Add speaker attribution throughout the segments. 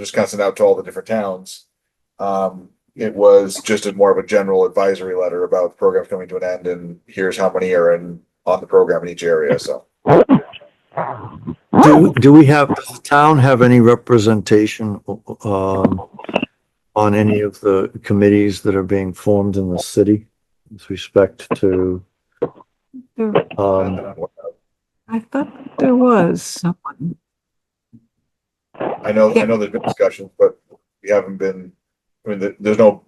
Speaker 1: Wisconsin out to all the different towns. Um, it was just a more of a general advisory letter about the program coming to an end and here's how many are in, on the program in each area, so.
Speaker 2: Do, do we have, does the town have any representation, um, on any of the committees that are being formed in the city with respect to,
Speaker 3: There,
Speaker 2: um,
Speaker 3: I thought there was someone.
Speaker 1: I know, I know there's been discussions, but we haven't been, I mean, there- there's no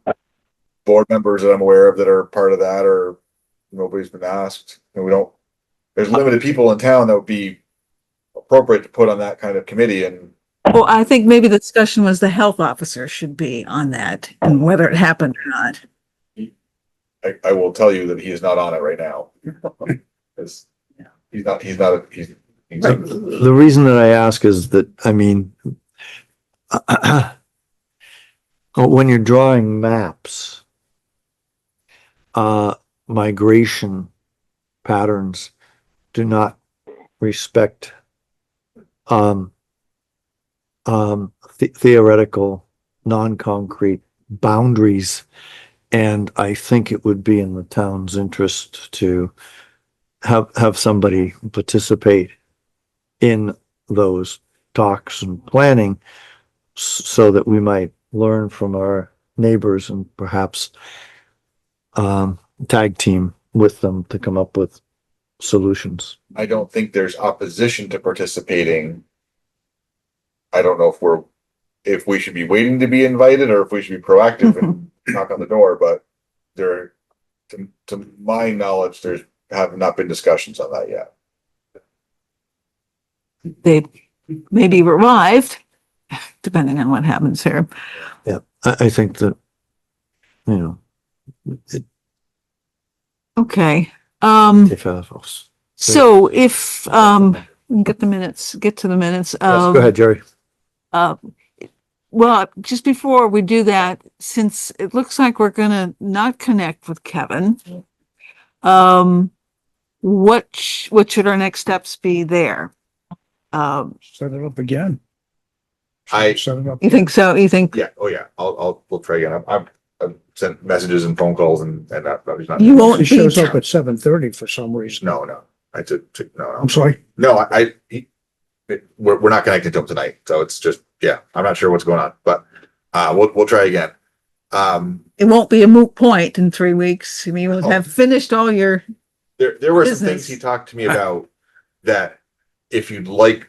Speaker 1: board members that I'm aware of that are part of that or nobody's been asked and we don't, there's limited people in town that would be appropriate to put on that kind of committee and
Speaker 3: Well, I think maybe the discussion was the health officer should be on that and whether it happened or not.
Speaker 1: I, I will tell you that he is not on it right now. 'Cause he's not, he's not, he's, he's,
Speaker 2: the reason that I ask is that, I mean, uh, when you're drawing maps, uh, migration patterns do not respect, um, um, the- theoretical, non-concrete boundaries. And I think it would be in the town's interest to have, have somebody participate in those talks and planning s- so that we might learn from our neighbors and perhaps um, tag team with them to come up with solutions.
Speaker 1: I don't think there's opposition to participating. I don't know if we're, if we should be waiting to be invited or if we should be proactive
Speaker 2: Mm-hmm.
Speaker 1: and knock on the door, but there, to, to my knowledge, there's have not been discussions on that yet.
Speaker 3: They may be revived, depending on what happens here.
Speaker 2: I, I think that, you know, it,
Speaker 3: Okay, um,
Speaker 2: if, uh, folks-
Speaker 3: so if, um, we can get the minutes, get to the minutes
Speaker 2: yes,
Speaker 3: of.
Speaker 2: go ahead, Jerry.
Speaker 3: Uh, well, just before we do that, since it looks like we're gonna not connect with Kevin, um, what, sh- what should our next steps be there? Um,
Speaker 4: Set it up again.
Speaker 1: I-
Speaker 4: Set it up.
Speaker 3: you think so? You think
Speaker 1: Yeah, oh yeah, I'll, I'll, we'll try again. I've- I've, I've sent messages and phone calls and, and that, that was not.
Speaker 3: you won't
Speaker 4: She
Speaker 3: be,
Speaker 4: shows up at seven thirty for some reason.
Speaker 1: No, no, I took, took, no, no.
Speaker 4: I'm sorry.
Speaker 1: No, I, I he, it, we're, we're not connected to him tonight, so it's just, yeah, I'm not sure what's going on, but, uh, we'll, we'll try again. Um,
Speaker 3: it won't be a moot point in three weeks. I mean,
Speaker 4: Oh.
Speaker 3: we'll have finished all your,
Speaker 1: there, there were some things
Speaker 3: Business.
Speaker 1: he talked to me about that if you'd like,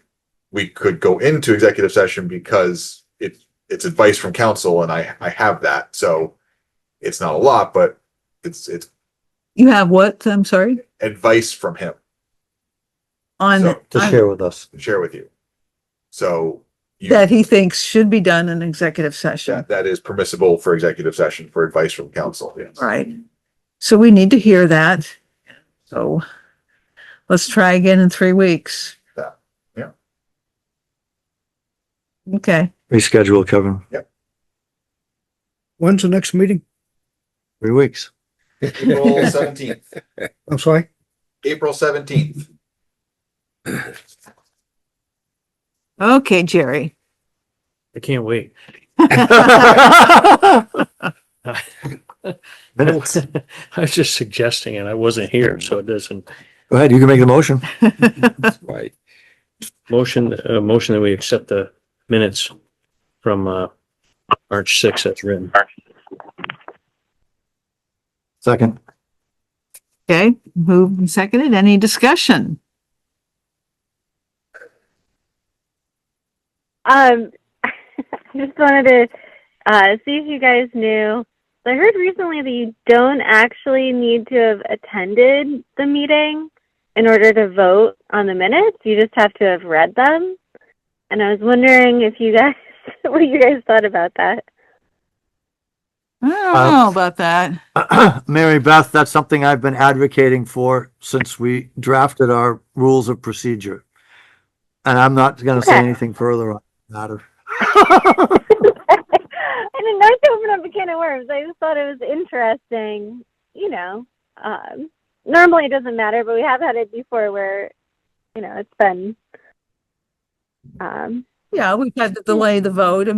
Speaker 1: we could go into executive session because it's, it's advice from council and I, I have that, so it's not a lot, but it's, it's
Speaker 3: you have what? I'm sorry,
Speaker 1: advice from him
Speaker 3: on,
Speaker 1: So,
Speaker 2: To
Speaker 3: on-
Speaker 2: share with us.
Speaker 1: to share with you. So you-
Speaker 3: that he thinks should be done in executive session,
Speaker 1: that, that is permissible for executive session for advice from council, yes.
Speaker 3: right? So we need to hear that. So let's try again in three weeks.
Speaker 1: Yeah. Yeah.
Speaker 3: Okay,
Speaker 2: Reschedule, Kevin.
Speaker 4: When's the next meeting?
Speaker 2: Three weeks.
Speaker 1: April seventeenth.
Speaker 4: I'm sorry.
Speaker 1: April seventeenth.
Speaker 3: okay, Jerry.
Speaker 5: I can't wait.
Speaker 2: Minutes.
Speaker 5: I was just suggesting and I wasn't here, so it doesn't.
Speaker 2: Go ahead, you can make the motion.
Speaker 5: Right. Motion, uh, motion that we accept the minutes from, uh, March sixth that's written.
Speaker 2: Second.
Speaker 3: Okay, moved and seconded. Any discussion?
Speaker 6: Um, I just wanted to uh, see if you guys knew. I heard recently that you don't actually need to have attended the meeting in order to vote on the minutes. You just have to have read them. And I was wondering if you guys, what you guys thought about that.
Speaker 3: I don't
Speaker 2: Um,
Speaker 3: know about that.
Speaker 2: Mary Beth, that's something I've been advocating for since we drafted our rules of procedure. And I'm not gonna say
Speaker 6: Okay.
Speaker 2: anything further on the matter.
Speaker 6: I didn't know to open up a can of worms. I just thought it was interesting. You know, um, normally it doesn't matter, but we have had it before where, you know, it's been. Um,
Speaker 3: Yeah, we've had to delay the vote. I